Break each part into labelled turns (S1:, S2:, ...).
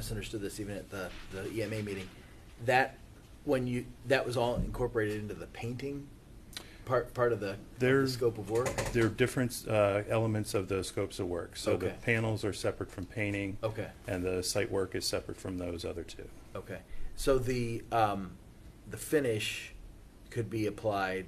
S1: misunderstood this even at the, the EMA meeting. That, when you, that was all incorporated into the painting part, part of the, of the
S2: There-
S1: scope of work?
S2: There are different uh, elements of those scopes of work. So the
S1: Okay. Oh.
S2: panels are separate from painting.
S1: Okay.
S2: And the site work is separate from those other two.
S1: Okay, so the, um, the finish could be applied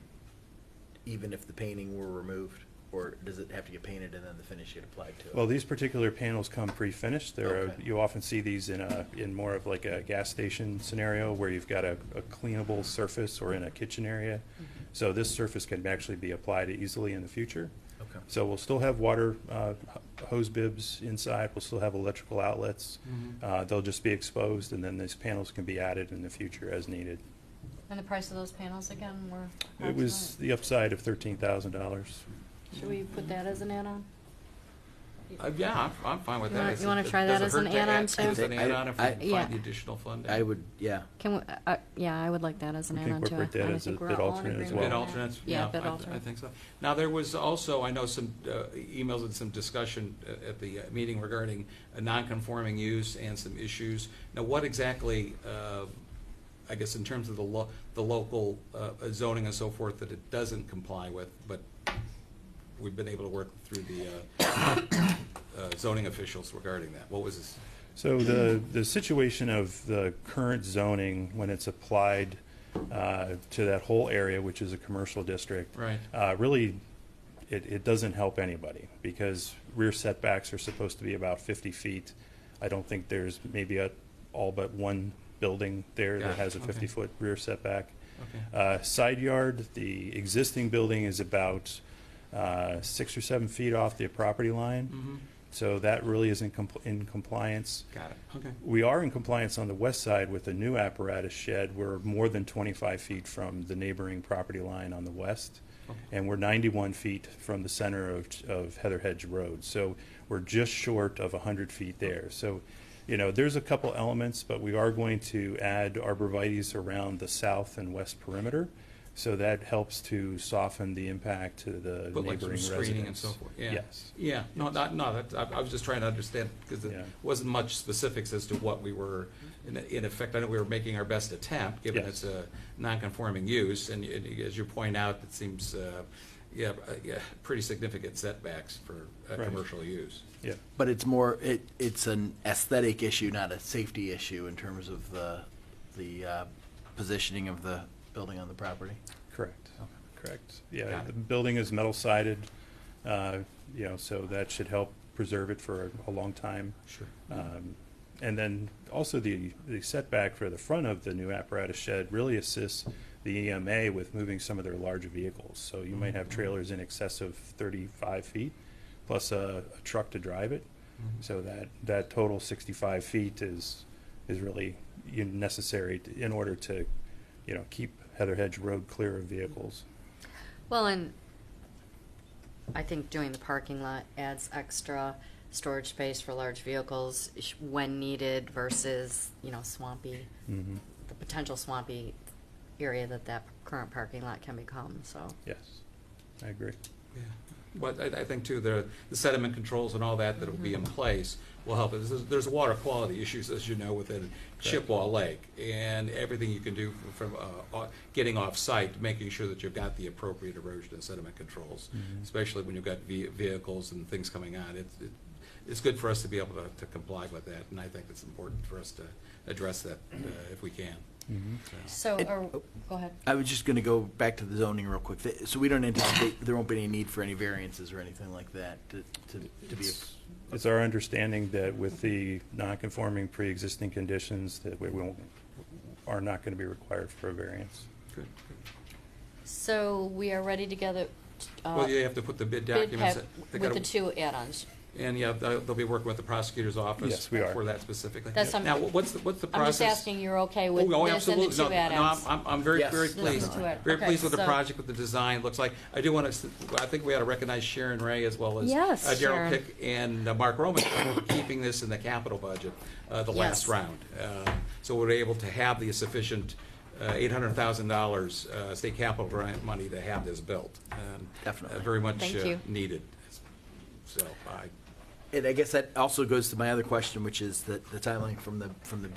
S1: even if the painting were removed? Or does it have to get painted and then the finish get applied to it?
S2: Well, these particular panels come pre-finished. There are,
S1: Okay.
S2: you often see these in a, in more of like a gas station scenario where you've got a a cleanable surface or in a kitchen area.
S3: Mm-hmm.
S2: So this surface can actually be applied easily in the future.
S1: Okay.
S2: So we'll still have water uh, h- hose bibs inside, we'll still have electrical outlets.
S1: Mm-hmm.
S2: Uh, They'll just be exposed, and then these panels can be added in the future as needed.
S3: And the price of those panels again were?
S2: It was the upside of thirteen thousand dollars.
S3: Should we put that as an add-on?
S4: Uh, yeah, I'm, I'm fine with
S3: You
S4: that.
S3: wanna-
S4: It's-
S3: you wanna
S4: it
S3: try that
S4: doesn't
S3: as an
S4: hurt to add-
S3: add-on, too?
S4: As an add-on, if we
S1: I-
S4: can
S3: Yeah.
S4: find the additional funding.
S1: I would, yeah.
S3: Can we, uh, yeah, I would like that as an
S2: We can
S3: add-on to it.
S2: incorporate that
S3: I
S2: as a
S3: think we're
S2: bid
S3: all in
S2: alternate as
S3: agreement
S2: well.
S3: on
S4: Bid
S3: that.
S4: alternates,
S3: Yeah,
S4: yeah,
S3: bid
S4: I, I
S3: alternate.
S4: think so. Now, there was also, I know some uh, emails and some discussion uh, at the uh, meeting regarding a non-conforming use and some issues. Now, what exactly, uh, I guess in terms of the lo, the local uh, zoning and so forth that it doesn't comply with, but we've been able to work through the uh, uh, zoning officials regarding that. What was this?
S2: So the, the situation of the current zoning, when it's applied uh, to that whole area, which is a commercial district.
S4: Right.
S2: uh, Really, it, it doesn't help anybody, because rear setbacks are supposed to be about 50 feet. I don't think there's maybe a, all but one building there that
S4: Gotcha,
S2: has a
S4: okay.
S2: 50-foot rear setback.
S4: Okay.
S2: Uh, Side yard, the existing building is about uh, six or seven feet off the property
S4: Mm-hmm.
S2: line. So that really isn't compl- in compliance.
S4: Got it, okay.
S2: We are in compliance on the west side with a new apparatus shed. We're more than 25 feet from the neighboring property line on the west,
S4: Okay.
S2: and we're 91 feet from the center of of Heather Hedge Road. So we're just short of 100 feet there. So, you know, there's a couple elements, but we are going to add arborvitae's around the south and west perimeter, so that helps to soften the impact to the
S4: But like
S2: neighboring
S4: some
S2: residents.
S4: screening and so forth, yeah.
S2: Yes.
S4: Yeah, no, not, no, that, I, I was just trying to understand, because
S2: Yeah.
S4: it wasn't much specifics as to what we were, in, in effect, I know we were making our best attempt, given
S2: Yes.
S4: it's a non-conforming use, and, and as you point out, it seems, uh, yeah, uh, yeah, pretty significant setbacks for uh,
S2: Right.
S4: commercial use.
S2: Yeah.
S1: But it's more, it, it's an aesthetic issue, not a safety issue in terms of the, the uh, positioning of the building on the property?
S2: Correct, correct. Yeah,
S4: Got it.
S2: the building is metal sided, uh, you know, so that should help preserve it for a long time.
S4: Sure.
S2: Um, And then also the the setback for the front of the new apparatus shed really assists the EMA with moving some of their larger vehicles. So you might
S4: Mm-hmm.
S2: have trailers in excess of 35 feet, plus a a truck to drive it. So that, that total 65 feet is, is really you know, necessary to- in order to, you know, keep Heather Hedge Road clear of vehicles.
S3: Well, and I think doing the parking lot adds extra storage space for large vehicles sh- when needed versus, you know, swampy,
S2: Mhm.
S3: the potential swampy area that that current parking lot can become, so.
S2: Yes, I agree.
S4: Yeah, But I, I think too, the, the sediment controls and all that that'll be
S3: Mm-hmm.
S4: in place will help. There's, there's water quality issues, as you know, within Chippewa Lake. And everything you can do from, uh, uh, getting off-site, making sure that you've got the appropriate erosion and sediment controls, especially when you've got ve- vehicles and things coming on. It's, it- it's good for us to be able to, to comply with that, and I think it's important for us to address that, uh, if we can.
S3: So,
S4: So-
S1: It-
S3: or, go ahead.
S1: I was just gonna go back to the zoning real quick. Th- So we don't anticipate, there won't be any need for any variances or anything like that to, to to be,
S2: It's- It's our understanding that with the non-conforming pre-existing conditions, that we won't, are not going to be required for a variance.
S4: Good.
S3: So we are ready to gather, uh,
S4: Well, you have to put the bid
S3: bid
S4: documents.
S3: pack
S4: they
S3: with
S4: gotta-
S3: the two add-ons.
S4: And yeah, they'll they'll be working with the prosecutor's office.
S2: Yes, we are.
S4: For that specifically.
S3: That's some-
S4: Now, what's, the- what's the
S3: I'm
S4: process?
S3: just asking, you're okay
S4: Oh,
S3: with
S4: oh,
S3: this and the
S4: absolutely. No,
S3: two add-ons?
S4: No, I'm, I'm- I'm very,
S1: Yes.
S4: very
S1: This
S3: is
S4: pleased.
S3: the two add-
S4: Very
S3: okay,
S4: pleased with the
S3: so-
S4: project, with the design, looks like. I do want to, I think we ought to recognize Sharon Ray as well as
S3: Yes,
S4: uh, Daryl
S3: Sharon.
S4: Pick and uh, Mark Roman for keeping this in the capital budget, uh, the last
S3: Yes.
S4: round. Uh, So we're able to have the sufficient uh, $800,000 uh, state capital grant money to have this built. Um,
S1: Definitely.
S4: uh, Very much
S3: Thank
S4: uh,
S3: you.
S4: needed. So I
S1: And I guess that also goes to my other question, which is that the timeline from the, from the